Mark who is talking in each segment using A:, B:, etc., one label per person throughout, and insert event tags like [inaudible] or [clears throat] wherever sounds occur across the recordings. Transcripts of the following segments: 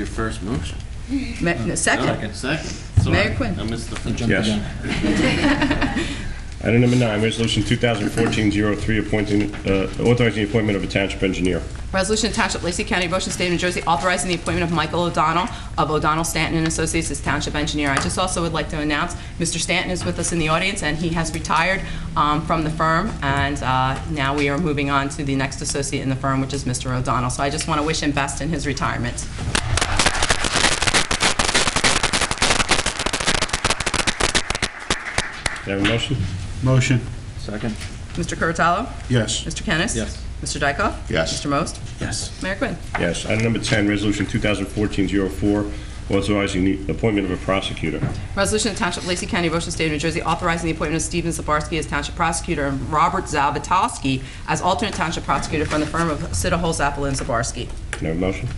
A: Your first motion.
B: Ma- no, Second,
A: Second.
B: Mayor Quinn.
A: I missed the first.
C: Yes. Item number nine, resolution 2014-03, appointing, uh, authorizing the appointment of a township engineer.
B: resolution to Township of Lacey County, Ocean State, New Jersey, authorizing the appointment of Michael O'Donnell of O'Donnell Stanton and Associates as Township Engineer. I just also would like to announce, Mr. Stanton is with us in the audience, and he has retired um, from the firm, and uh, now we are moving on to the next associate in the firm, which is Mr. O'Donnell. So I just want to wish him best in his retirement.
C: Can I have a motion?
D: Motion.
A: Second.
B: Mr. Curatolo?
D: Yes.
B: Mr. Kennis?
A: Yes.
B: Mr. Dykoff?
D: Yes.
B: Mr. Most?
D: Yes.
B: Mayor Quinn.
C: Yes. Item number 10, resolution 2014-04, authorizing the appointment of a prosecutor.
B: Resolution of Township of Lacey County, Ocean State of New Jersey, authorizing the appointment of Steven Zabarski as Township Prosecutor and Robert Zabatowski as alternate Township Prosecutor from the firm of Siddall, Zappel, and Zabarski.
C: Can I have a motion?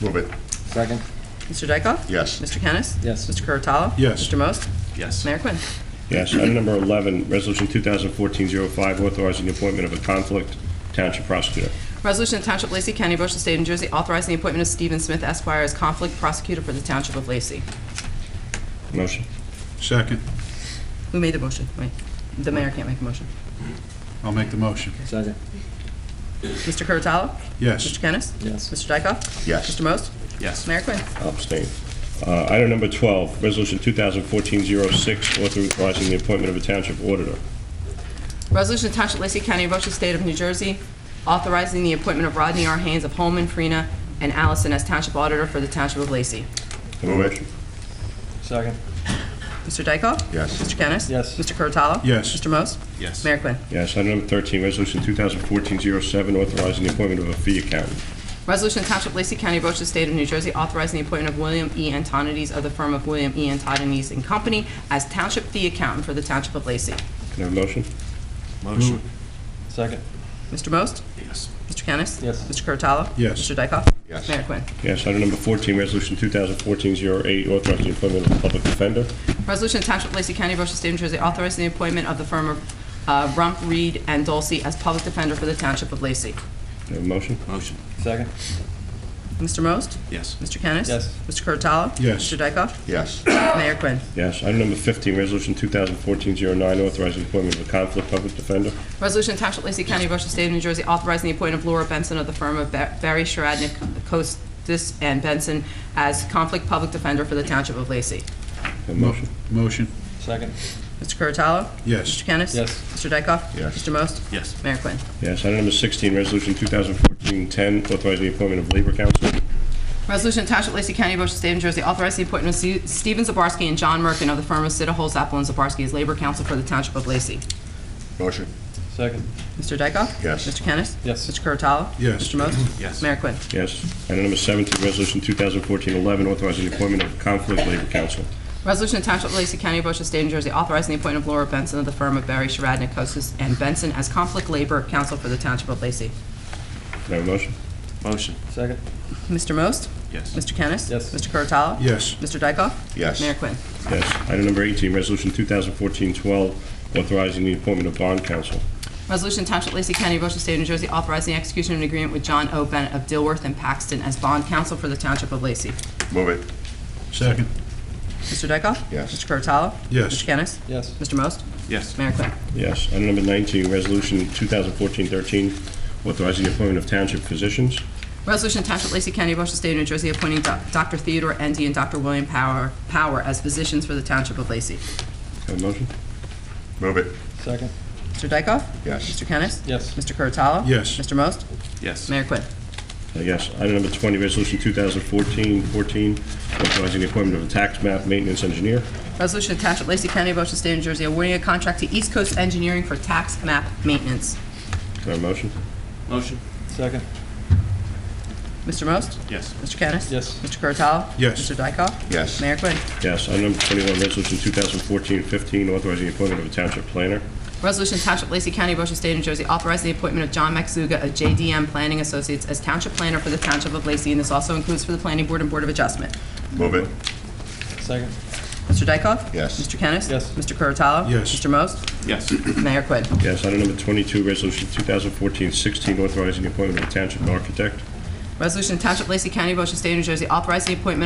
D: Move it.
A: Second.
B: Mr. Dykoff?
D: Yes.
B: Mr. Kennis?
A: Yes.
B: Mr. Curatolo?
D: Yes.
B: Mr. Most?
A: Yes.
B: Mayor Quinn.
C: Yes. Item number 11, resolution 2014-05, authorizing the appointment of a conflict township prosecutor.
B: Resolution of Township of Lacey County, Ocean State of New Jersey, authorizing the appointment of Steven Smith Esquire as Conflict Prosecutor for the Township of Lacey.
C: Motion?
D: Second.
B: Who made the motion? Wait, the mayor can't make a motion.
D: I'll make the motion.
A: Second.
B: Mr. Curatolo? Mr.
D: Yes.
B: Kennis?
A: Yes.
B: Mr. Dykoff?
D: Yes.
B: Mr. Most?
A: Yes.
B: Mayor Quinn.
C: I'll abstain. Uh, Item number 12, resolution 2014-06, authorizing the appointment of a township auditor.
B: Resolution to Township of Lacey County, Ocean State of New Jersey, authorizing the appointment of Rodney R. Haynes of Holman, Farina, and Allison as Township Auditor for the Township of Lacey.
C: Can I have a motion?
A: Second.
B: Mr. Dykoff?
D: Yes.
B: Mr. Kennis?
A: Yes.
B: Mr. Curatolo?
D: Yes.
B: Mr. Most?
A: Yes.
B: Mayor Quinn.
C: Yes, item number 13, resolution 2014-07, authorizing the appointment of a fee accountant.
B: Resolution to Township of Lacey County, Ocean State of New Jersey, authorizing the appointment of William E. Antonides of the firm of William E. Antonides and Company as Township Fee Accountant for the Township of Lacey.
C: Can I have a motion?
A: Motion. Second.
B: Mr. Most?
A: Yes.
B: Mr. Kennis?
A: Yes.
B: Mr. Curatolo?
D: Yes.
B: Mr. Dykoff?
D: Yes.
B: Mayor Quinn.
C: Yes, item number 14, resolution 2014-08, authorizing the appointment of a public defender.
B: Resolution to Township of Lacey County, Ocean State, New Jersey, authorizing the appointment of the firm of uh, Rump, Reed, and Dulce as public defender for the Township of Lacey.
C: Can I have a motion?
A: Motion. Second.
B: Mr. Most?
A: Yes.
B: Mr. Kennis?
A: Yes.
B: Mr. Curatolo?
D: Yes.
B: Mr. Dykoff?
D: Yes.
B: Mayor Quinn.
C: Yes, item number 15, resolution 2014-09, authorizing the appointment of a conflict public defender.
B: Resolution to Township of Lacey County, Ocean State, New Jersey, authorizing the appointment of Laura Benson of the firm of Ba- Barry Sharadnik, Costas, and Benson as conflict public defender for the Township of Lacey.
C: Can I have a motion?
D: Motion.
A: Second.
B: Mr. Curatolo?
D: Yes.
B: Mr. Kennis?
A: Yes.
B: Mr. Dykoff?
D: Yes.
B: Mr. Most?
A: Yes.
B: Mayor Quinn.
C: Yes, item number 16, resolution 2014-10, authorizing the appointment of labor counsel.
B: Resolution attached Township of Lacey County, Ocean State, New Jersey, authorizing the appointment of Ste- Stephen Zabarski and John Merkin of the firm of Siddall, Zappel, and Zabarski as Labor Counsel for the Township of Lacey.
D: Motion.
A: Second.
B: Mr. Dykoff?
D: Yes.
B: Mr. Kennis?
A: Yes.
B: Mr. Curatolo?
D: [clears throat] Yes.
B: Mr. Most?
A: Yes.
B: Mayor Quinn.
C: Yes, item number 17, resolution 2014-11, authorizing the appointment of a conflict labor counsel.
B: Resolution attached Township of Lacey County, Ocean State, New Jersey, authorizing the appointment of Laura Benson of the firm of Barry Sharadnik, Costas, and Benson as Conflict Labor Counsel for the Township of Lacey.
C: Can I have a motion?
A: Motion. Second.
B: Mr. Most?
A: Yes.
B: Mr. Kennis?
A: Yes.
B: Mr. Curatolo?
D: Yes.
B: Mr. Dykoff?
D: Yes.
B: Mayor Quinn.
C: Yes. Item number 18, Resolution 2014-12, authorizing the appointment of bond counsel.
B: Resolution Township of Lacey County, Ocean State, New Jersey, authorizing the execution of an agreement with John O. Bennett of Dilworth and Paxton as bond counsel for the Township of Lacey.
D: Move it. Second.
B: Mr. Dykoff?
D: Yes.
B: Mr. Curatolo?
D: Yes.
B: Mr. Kennis?
A: Yes.
B: Mr. Most?
A: Yes.
B: Mayor Quinn.
C: Yes. Item number 19, Resolution 2014-13, authorizing the appointment of township physicians.
B: Resolution Township of Lacey County, Ocean State, New Jersey, appointing Doc- Dr. Theodore Endy and Dr. William Power Power as physicians for the Township of Lacey.
C: Have a motion?
D: Move it.
A: Second.
B: Mr. Dykoff?
D: Yes.
B: Mr. Kennis?
A: Yes.
B: Mr. Curatolo?
D: Yes.
B: Mr. Most?
A: Yes.
B: Mayor Quinn.
C: Uh, Yes. Item number 20, Resolution 2014-14, authorizing the appointment of a tax map maintenance engineer.
B: Resolution Township of Lacey County, Ocean State, New Jersey, awarding a contract to East Coast Engineering for tax map maintenance.
C: Can I have a motion?
A: Motion. Second.
B: Mr. Most?
A: Yes.
B: Mr. Kennis?
A: Yes.
B: Mr. Curatolo?
D: Yes.
B: Mr. Dykoff?
D: Yes.
B: Mayor Quinn.
C: Yes. Item number 21, Resolution 2014-15, authorizing the appointment of a township planner.
B: Resolution Township of Lacey County, Ocean State, New Jersey, authorizing the appointment of John Maxuga of JDM Planning Associates as Township Planner for the Township of Lacey, and this also includes for the Planning Board and Board of Adjustment.
D: Move it.
A: Second.
B: Mr. Dykoff?
D: Yes.
B: Mr. Kennis?
A: Yes.
B: Mr. Curatolo?
D: Yes.
B: Mr.
D: [clears throat]
B: Most?
A: Yes.
B: Mayor Quinn.
C: Yes. Item number 22, Resolution 2014-16, authorizing the appointment of a township architect.
B: Resolution of Township of Lacey County, Ocean State, New Jersey, authorizing the appointment